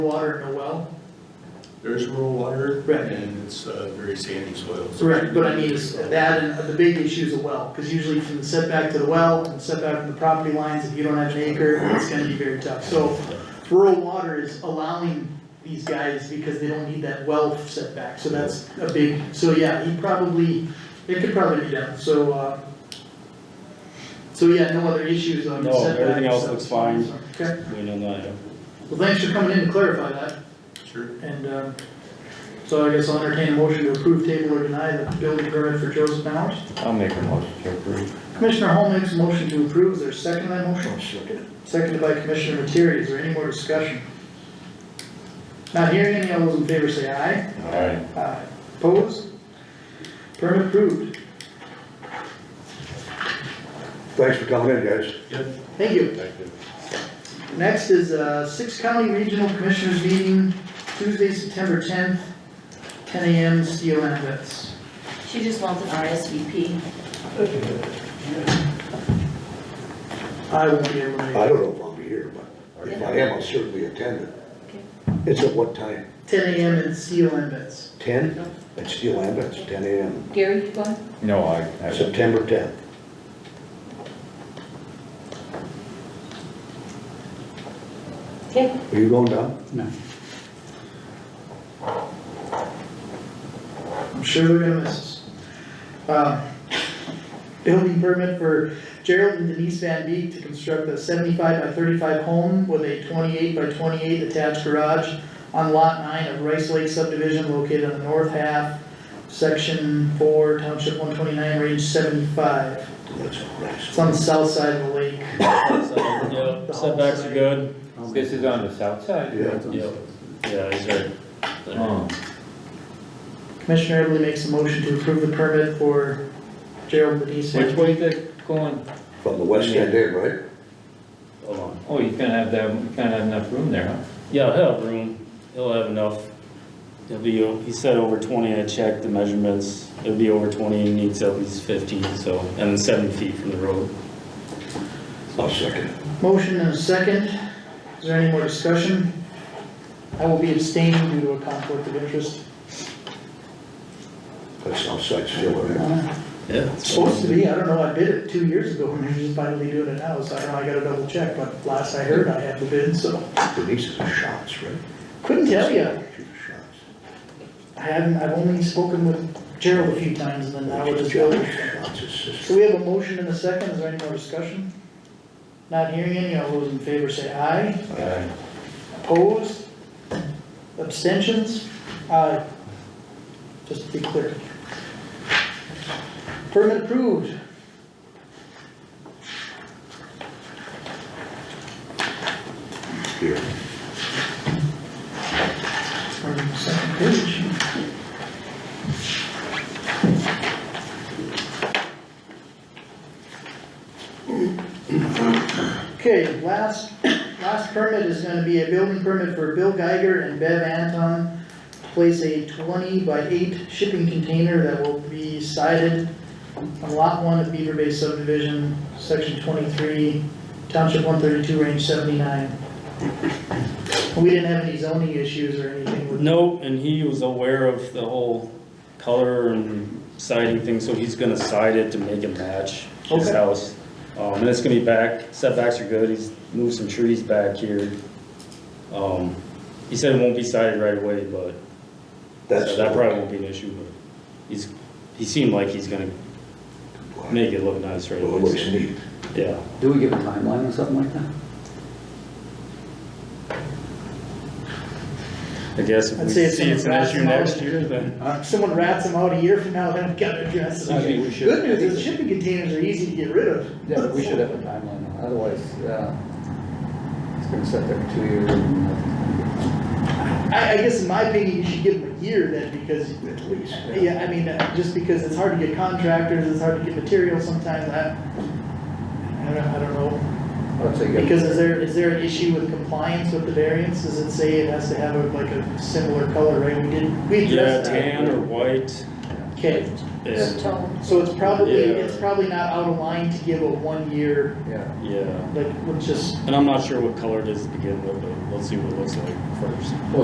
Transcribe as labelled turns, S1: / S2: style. S1: Water in a well?
S2: There's rural water.
S1: Right.
S2: And it's uh, very sandy soils.
S1: Right, but I mean, it's that and the big issue is a well, cause usually from the setback to the well and setback from the property lines, if you don't have an acre, it's gonna be very tough. So rural water is allowing these guys because they don't need that well setback, so that's a big, so yeah, he probably, it could probably be done, so, uh. So yeah, no other issues on the
S3: No,
S1: setback.
S3: everything else
S1: so-
S3: looks fine.
S1: Okay,
S3: We know that.
S1: well, thanks for coming in to clarify that.
S2: Sure.
S1: And, um, so I guess I'll entertain a motion to approve, table, or deny the building permit for Joseph Bowers.
S4: I'll make a motion to approve.
S1: Commissioner Hall makes a motion to approve, is there a second to that motion? Seconded by Commissioner Materi, is there any more discussion? Not hearing any, all those in favor say aye.
S4: Alright.
S1: Aye. Opposed? Permit approved,
S5: Thanks for coming in, guys.
S2: Yep.
S1: thank you.
S4: Thank you.
S1: Next is, uh, Six County Regional Commissioners Meeting, Tuesday, September tenth, ten AM, CLN events.
S6: She just wants an RSVP.
S1: I won't be able to make
S5: I
S1: it,
S5: don't know if I'll be here, but if I am, I'll certainly attend it. It's at what time?
S1: ten AM and CLN events.
S5: Ten? At Steel Ambulance, ten AM,
S6: Gary, you going?
S4: No, I, I,
S5: September tenth.
S6: Okay.
S5: Are you going down?
S1: I'm sure they're gonna miss us. Uh, Building permit for Gerald and Denise Van Beek to construct a seventy-five by thirty-five home with a twenty-eight by twenty-eight attached garage on lot nine of Rice Lake subdivision located on the north half, section four, township one twenty-nine, range seventy-five.
S5: That's
S1: It's
S5: nice.
S1: on the south side of the lake.
S3: Yep, setbacks are good.
S4: this is on the south side.
S5: Yeah.
S3: Yep, yeah, these are,
S4: Oh,
S1: Commissioner Everly makes a motion to approve the permit for Gerald and Denise Van
S4: Which
S1: Beek.
S4: way's that going?
S5: From the west end in, right?
S3: hold on.
S4: Oh, he's gonna have that, he's gonna have enough room there, huh?
S3: Yeah, he'll have room, he'll have enough. It'll be, o- he said over twenty, I checked the measurements, it'll be over twenty, he needs at least fifty, so, and seven feet from the road.
S5: I'll second it.
S1: Motion and a second. Is there any more discussion? I will be abstaining due to a conflict of interest.
S5: That's outside Steel Ambulance.
S1: Uh,
S3: Yeah.
S1: It's supposed to be, I don't know, I did it two years ago and they're just finally doing it now, so I don't know, I gotta double check, but last I heard I had the bid, so.
S5: Denise is a shots, right?
S1: Couldn't tell ya.
S5: She's a shots.
S1: I haven't, I've only spoken with Gerald a few times and then now we're just building.
S5: Shots'
S1: So
S5: sister.
S1: we have a motion and a second. Is there any more discussion? Not hearing any. All those in favor say aye.
S4: Alright.
S1: Opposed? Abstentions? Aye. Just to be clear. Permit approved.
S5: Here.
S1: Turn to the second page. Okay, last, last permit is gonna be a building permit for Bill Geiger and Bev Anton to place a twenty by eight shipping container that will be sited on lot one of Beaver Bay subdivision, section twenty-three, township one thirty-two, range seventy-nine. We didn't have any zoning issues or anything with
S3: No, and he was aware of the whole color and siding thing, so he's gonna side it to make it match his
S1: Okay.
S3: house. Um, and it's gonna be back, setbacks are good, he's moved some trees back here. Um, he said it won't be sided right away, but,
S5: That's.
S3: so that probably won't be an issue, but he's, he seemed like he's gonna make it look nice right
S5: Well, it looks
S3: away.
S5: neat.
S3: so, Yeah,
S7: Do we give a timeline or something like that?
S3: I guess if
S1: I'd
S3: we
S1: say
S3: see
S1: if
S3: it's an
S1: someone
S3: issue
S1: grabs
S3: next year, then.
S1: If someone rats them out a year from now, then we gotta address
S4: I think
S1: it.
S4: we should-
S1: Good news is shipping containers are easy to get rid of.
S7: Yeah, but we should have a timeline, otherwise, uh, it's gonna sit there for two years and uh, nothing's
S1: I, I guess in my opinion, you should give them a year then, because,
S5: At least.
S1: yeah, I mean, uh, just because it's hard to get contractors, it's hard to get material sometimes, I, I don't, I don't know.
S7: gonna, I'd say.
S1: Because is there, is there an issue with compliance with the variance? Does it say it has to have a, like a similar color, right? We did, we
S3: Yeah,
S1: addressed that.
S3: tan or white,
S1: Okay,
S3: And,
S6: Tone.
S1: so it's probably,
S3: Yeah.
S1: it's probably not out of line to give a one-year,
S7: yeah.
S3: yeah,
S1: like, let's just
S3: and I'm not sure what color it is to begin with, but let's see what it looks like first.